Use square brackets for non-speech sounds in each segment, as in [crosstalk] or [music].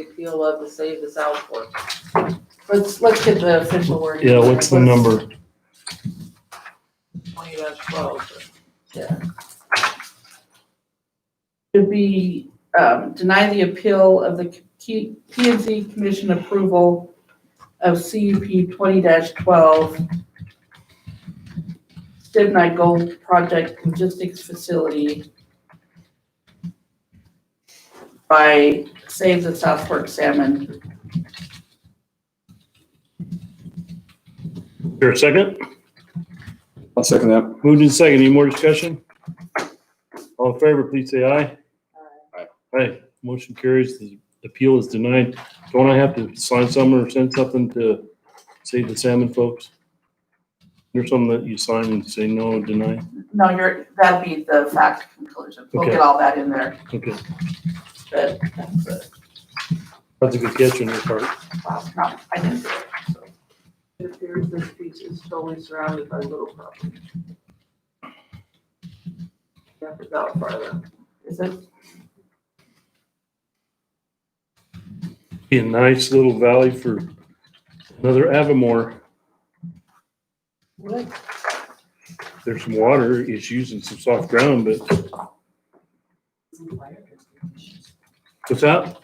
appeal of the Save the South Fork. Let's, let's get the official word. Yeah, what's the number? Twenty dash twelve, yeah. Should be, um, deny the appeal of the P and Z Commission approval of CUP twenty twelve. Stibnite Gold Project Logistics Facility by Save the South Fork Salmon. Here, a second. I'll second that. Moved in second. Any more discussion? All in favor, please say aye. Aye. Aye. Motion carries. The appeal is denied. Don't I have to sign something or send something to save the salmon folks? There's something that you sign and say no, deny. No, you're, that'd be the fact conclusion. We'll Okay. get all that in there, Okay. but that's it. That's a good catch on your part. Wow, no, I didn't do it, so. It appears this piece is totally surrounded by little property. Step it out farther. Is it, Be a nice little valley for another Avamore. [laughs] what? There's some water issues and some soft ground, but No fire extinguishers. what's that?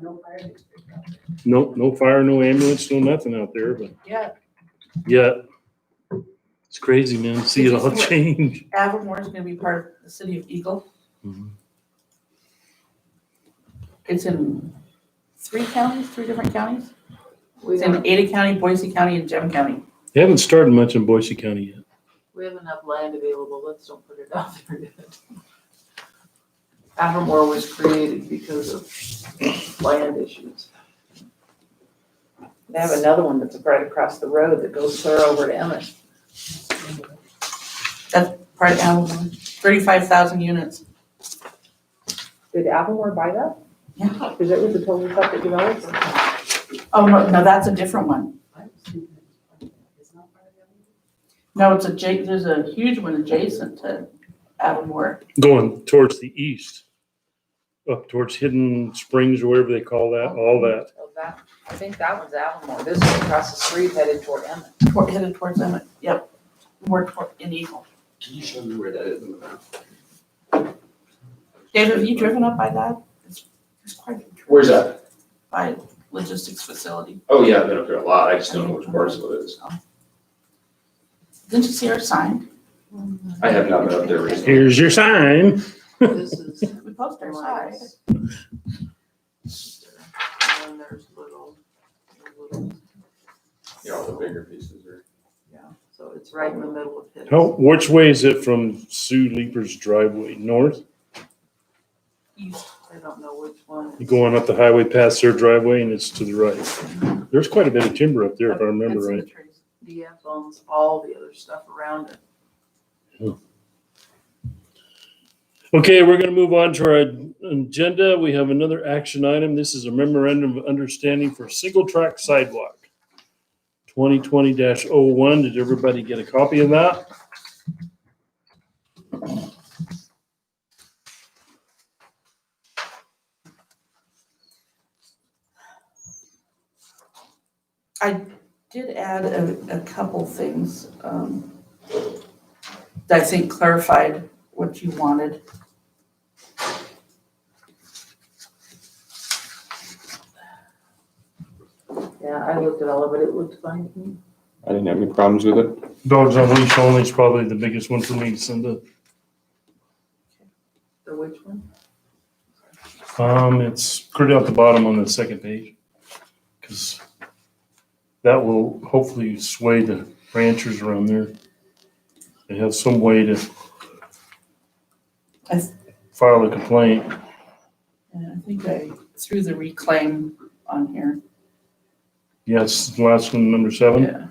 No fire extinguishers. No, no fire, no ambulance, no nothing out there, but Yeah, yeah. It's crazy, man. to See it all change. Avamore's gonna be part of the city of Eagle. Mhm. It's in three counties, three different counties? We It's have, in Ada County, Boise County, and Gem County. They haven't started much in Boise County yet. we have enough land available, let's don't put it out [laughs] there yet. Avamore was created because of land issues. They have another one that's right across the road that goes clear over to Emmett. Part of Avamore, um, thirty-five thousand units. Did Avamore buy that? Yeah. Because it was the total stuff that developed. Oh, no, no, that's a different one. No, it's a J, there's a huge one adjacent to Avamore. Going towards the east, up towards Hidden Springs or whatever they call that, all that. Oh, that, I think that one's Avamore. This is across the street headed toward Emmett. toward, headed towards Emmett, yep, more toward, in Eagle. Can you show me where that is in the map? David, have you driven up by that? It's it's quite a trip Where's that? by logistics facility. Oh, yeah, I've been up there a lot. I just don't know which parcel it is. Didn't you see our sign? I have not been up there recently. Here's your sign. This is. We posted our sign. Mine's- And there's little, little, Yeah, all the bigger pieces are. so it's right in the middle of his. How, which way is it from Sue Leaper's driveway? North? East. I don't know which one. You going up the highway past their driveway and it's to the right. There's quite a bit of timber up there if I remember It's in the right. trees. DF owns all the other stuff around it. Okay, we're gonna move on to our agenda. We have another action item. This is a memorandum of understanding for single track sidewalk. Twenty twenty oh one Did everybody get a copy of that? Did add a, a couple things, um, that I think clarified what you wanted. Yeah, I looked at all of it, it looked fine to me. I didn't have any problems with it. Dogs on leash only is probably the biggest one for me, Cindy. The which one? Um, it's pretty at the bottom on the second page. Cause that will hopefully sway the ranchers around there. They have some way to I s- file a complaint. And I think I threw the reclaim on here. Yes, the last one, number seven. Yeah.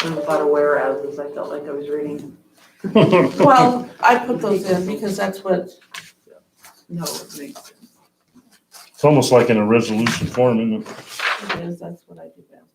Something about a warehouses, I felt like I was reading, [laughs] Well, I put those in because that's what no, it makes sense. It's almost like in a resolution form, isn't it? it is, that's what I do best.